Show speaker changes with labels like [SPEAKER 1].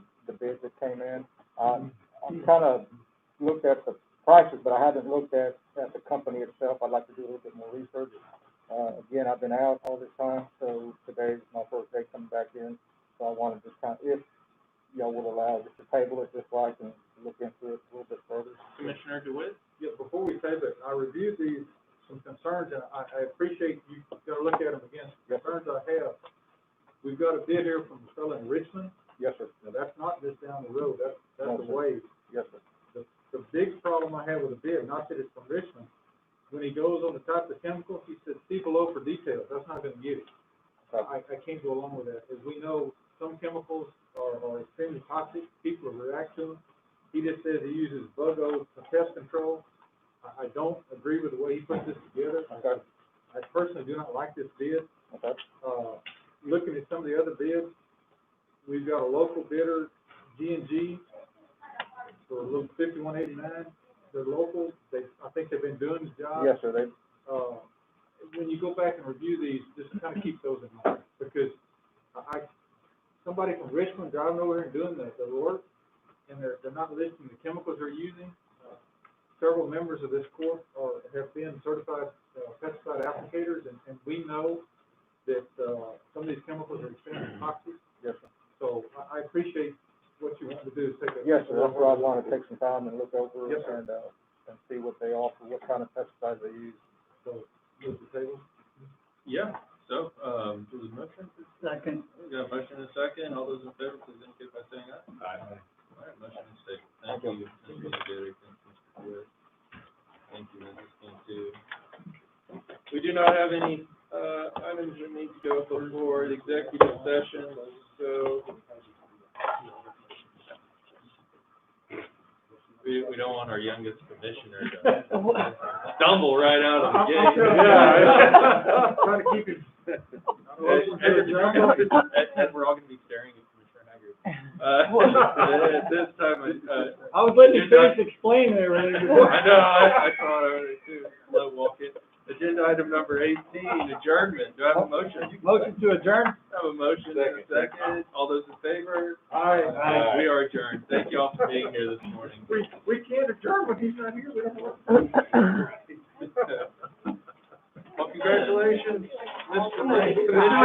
[SPEAKER 1] bids that came in. Um, I've kind of looked at the prices, but I haven't looked at, at the company itself. I'd like to do a little bit more research. Uh, again, I've been out all this time, so today's my first day coming back in. So I wanted to kind, if y'all will allow, just to table it, just so I can look into it a little bit further.
[SPEAKER 2] Commissioner DeWitt?
[SPEAKER 3] Yeah, before we table it, I reviewed these, some concerns, and I, I appreciate you gonna look at them again, Some concerns I have. We've got a bid here from a fellow in Richmond,
[SPEAKER 1] Yes, sir.
[SPEAKER 3] now that's not just down the road, that's,
[SPEAKER 1] No,
[SPEAKER 3] that's
[SPEAKER 1] sir.
[SPEAKER 3] a ways.
[SPEAKER 1] Yes, sir.
[SPEAKER 3] The, the big problem I have with the bid, not that it's from Richmond, when he goes on the type of chemical, he says, see below for details, that's not gonna get it.
[SPEAKER 1] Okay.
[SPEAKER 3] I, I can't go along with that, as we know, some chemicals are, are extremely toxic, people react to them. He just says he uses BOGO for pest control. I, I don't agree with the way he put this together. I,
[SPEAKER 1] Okay.
[SPEAKER 3] I personally do not like this bid.
[SPEAKER 1] Okay.
[SPEAKER 3] Uh, looking at some of the other bids, we've got a local bidder, G and G, for a little fifty-one eighty-nine. They're local, they, I think they've been doing the job
[SPEAKER 1] Yes, sir. They,
[SPEAKER 3] uh, when you go back and review these, just kind of keep those in mind, because I, I- somebody from Richmond driving over here and doing the, the work, and they're, they're not listing the chemicals they're using. Uh, Several members of this court are, have been certified uh, pesticide applicators, and, and we know that, uh, some of these chemicals are extremely toxic,
[SPEAKER 1] yes, sir.
[SPEAKER 3] so I, I appreciate what you want to do, is take a.
[SPEAKER 1] Yes, sir, that's where I wanna take some time and look over
[SPEAKER 3] Yes, sir.
[SPEAKER 1] and, uh, and see what they offer, what kind of pesticides they use.
[SPEAKER 3] So, move the table.
[SPEAKER 2] Yeah, so, um, there was a motion? Second. We got a motion and a second, all those in favor, please indicate by saying aye. Aye. All right, motion is taken, thank you, Mr. Derrick, and Mr. DeWitt. Thank you, Mrs. Cantu. We do not have any, uh, items that need to go before the executive session, so we, we don't want our youngest commissioner to stumble right out of the gate.
[SPEAKER 3] Yeah. Trying to keep it.
[SPEAKER 2] And we're all gonna be staring at Commissioner Haggard. Uh, at this time, I, uh,
[SPEAKER 4] I was letting you finish explaining everything.
[SPEAKER 2] I know, I, I thought I would too, slow walking. Agenda item number eighteen, adjournment. Do I have a motion?
[SPEAKER 4] Motion to adjourn?
[SPEAKER 2] I have a motion and a Oh. second. All those in favor?
[SPEAKER 3] Aye.
[SPEAKER 2] We are adjourned. Thank you all for being here this morning.
[SPEAKER 3] We, we can't adjourn when he's not here, we don't want.
[SPEAKER 2] Well, congratulations, Mr. Lake.